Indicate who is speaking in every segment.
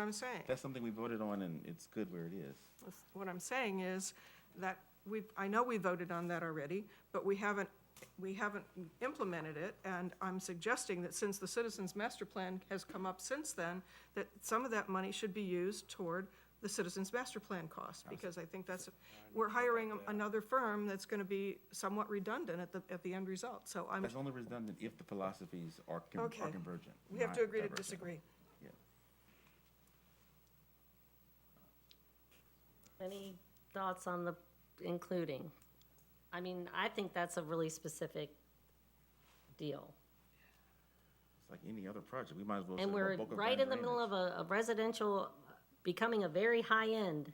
Speaker 1: what I'm saying.
Speaker 2: That's something we voted on, and it's good where it is.
Speaker 1: That's What I'm saying is that we, I know we voted on that already, but we haven't, we haven't implemented it. And I'm suggesting that since the Citizens Master Plan has come up since then, that some of that money should be used toward the Citizens Master Plan cost. Because I think that's, we're hiring another firm that's going to be somewhat redundant at the, at the end result. So I'm,
Speaker 2: That's only redundant if the philosophies are con- are
Speaker 1: Okay.
Speaker 2: convergent.
Speaker 1: we have
Speaker 2: not
Speaker 1: to agree to
Speaker 2: divergent.
Speaker 1: disagree.
Speaker 2: Yeah.
Speaker 3: Any thoughts on the including? I mean, I think that's a really specific deal.
Speaker 2: It's like any other project, we might as well.
Speaker 3: And
Speaker 2: say,
Speaker 3: we're
Speaker 2: well, Boca
Speaker 3: right
Speaker 2: Raton
Speaker 3: in the middle of
Speaker 2: drainage.
Speaker 3: a a residential, becoming a very high-end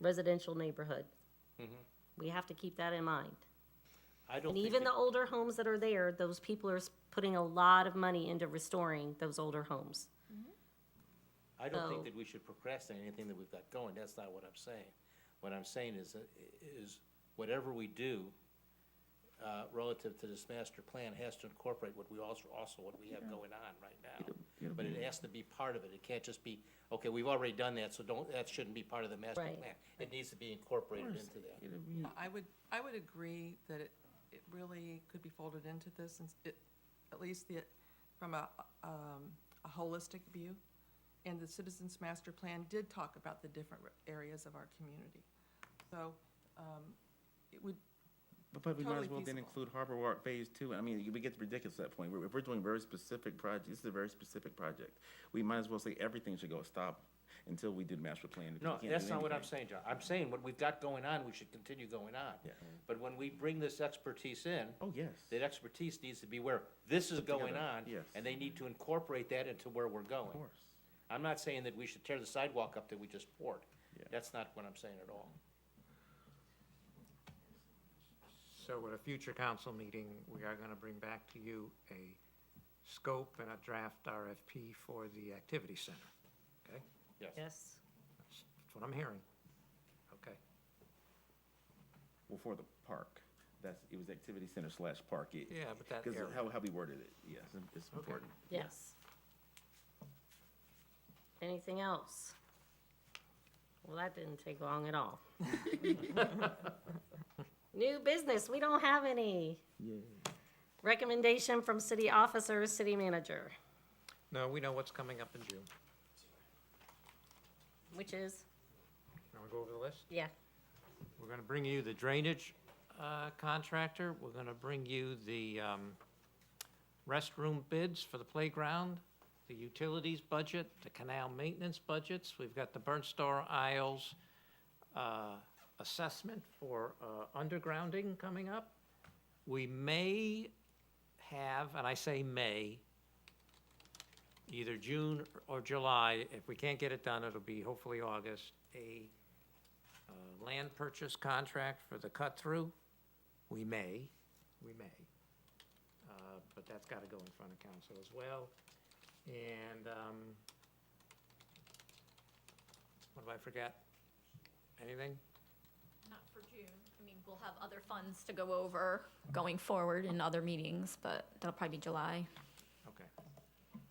Speaker 3: residential neighborhood. We have to keep that in mind.
Speaker 4: I don't
Speaker 3: And
Speaker 4: think
Speaker 3: even
Speaker 4: that-
Speaker 3: the older homes that are there, those people are s- putting a lot of money into restoring those older homes.
Speaker 4: I don't think
Speaker 3: Oh.
Speaker 4: that we should procrastinate anything that we've got going, that's not what I'm saying. What I'm saying is, that- is whatever we do, uh, relative to this master plan has to incorporate what we also, also what we have going on right now.
Speaker 2: it'll
Speaker 4: But it has to be part of it, it can't just be, okay, we've already done that, so don't, that shouldn't be part of the master
Speaker 3: Right.
Speaker 4: plan. It needs to be incorporated into that.
Speaker 2: It'll be-
Speaker 5: I would, I would agree that it, it really could be folded into this, and it, at least the, from a, um, a holistic view. And the Citizens Master Plan did talk about the different areas of our community. So, um, it would,
Speaker 2: But, but we might as
Speaker 5: Totally
Speaker 2: well then
Speaker 5: feasible.
Speaker 2: include Harbor Walk Phase Two. I mean, we get ridiculous at that point. We're- If we're doing very specific projects, this is a very specific project. We might as well say everything should go stop until we do the master plan. because
Speaker 4: No,
Speaker 2: we can't
Speaker 4: that's
Speaker 2: do
Speaker 4: not what I'm
Speaker 2: anything.
Speaker 4: saying, John, I'm saying what we've got going on, we should continue going on.
Speaker 2: Yeah.
Speaker 4: But when we bring this expertise in.
Speaker 2: Oh, yes.
Speaker 4: that expertise needs to be where this is going
Speaker 2: together,
Speaker 4: on,
Speaker 2: yes.
Speaker 4: and they need to incorporate that into where we're
Speaker 2: Of
Speaker 4: going.
Speaker 2: course.
Speaker 4: I'm not saying that we should tear the sidewalk up that we just poured.
Speaker 2: Yeah.
Speaker 4: That's not what I'm saying at all.
Speaker 6: So at a future council meeting, we are gonna bring back to you a scope and a draft RFP for the activity center, okay?
Speaker 4: Yes.
Speaker 3: Yes.
Speaker 6: That's that's what I'm hearing. Okay,
Speaker 2: Well, for the park, that's, it was activity center slash park. It-
Speaker 6: Yeah, but that
Speaker 2: 'cause
Speaker 6: area.
Speaker 2: How, how we worded it, yes, it's important.
Speaker 3: Yes. Anything else? Well, that didn't take long at all. New business, we don't have any. Recommendation from city officers, city manager,
Speaker 6: no, we know what's coming up in June.
Speaker 3: which is,
Speaker 6: You wanna go over the list?
Speaker 3: yeah,
Speaker 6: We're gonna bring you the drainage uh, contractor, we're gonna bring you the um, restroom bids for the playground, the utilities budget, the canal maintenance budgets, we've got the Burnt Star Isles uh, assessment for uh, undergrounding coming up. We may have, and I say may, either June or July, if we can't get it done, it'll be hopefully August, a uh, land purchase contract for the cut-through, we may, we may. Uh, But that's got to go in front of council as well. And um, what have I forgot? Anything?
Speaker 7: Not for June. I mean, we'll have other funds to go over going forward in other meetings, but that'll probably be July.
Speaker 6: Okay.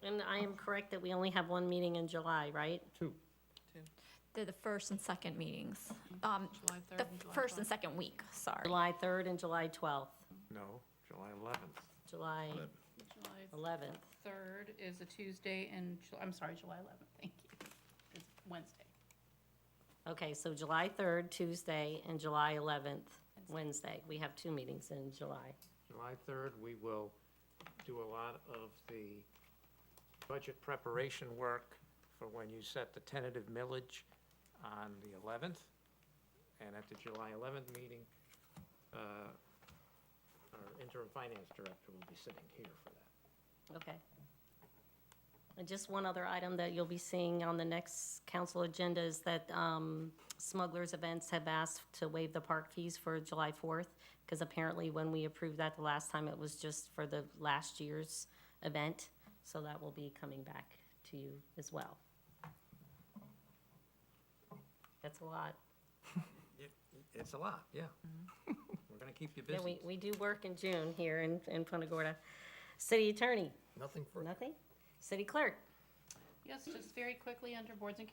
Speaker 3: and I am correct that we only have one meeting in July, right?
Speaker 6: Two.
Speaker 7: They're the first and second meetings. Um,
Speaker 5: July third
Speaker 7: the
Speaker 5: and July
Speaker 7: first and
Speaker 5: fourth.
Speaker 7: second week, sorry.
Speaker 3: July third and July twelfth,
Speaker 6: No, July 11th.
Speaker 3: July
Speaker 8: July
Speaker 3: eleventh.
Speaker 8: 3rd is a Tuesday and, Ju- I'm sorry, July 11th, thank you. It's Wednesday.
Speaker 3: Okay, so July third, Tuesday, and July eleventh, Wednesday. We have two meetings in July.
Speaker 6: July 3rd, we will do a lot of the budget preparation work for when you set the tentative millage on the 11th. And at the July 11th meeting, uh, our interim finance director will be sitting here for that.
Speaker 3: Okay. And just one other item that you'll be seeing on the next council agenda is that um, Smugglers Events have asked to waive the park fees for July 4th, because apparently when we approved that the last time, it was just for the last year's event. So that will be coming back to you as well. That's a lot.
Speaker 6: It's a lot, yeah. We're going to keep you
Speaker 3: Yeah,
Speaker 6: busy.
Speaker 3: we, we do work in June here in, in Punta Gorda. City Attorney,
Speaker 6: Nothing for.
Speaker 3: nothing? City Clerk?
Speaker 8: Yes, just very quickly, under boards and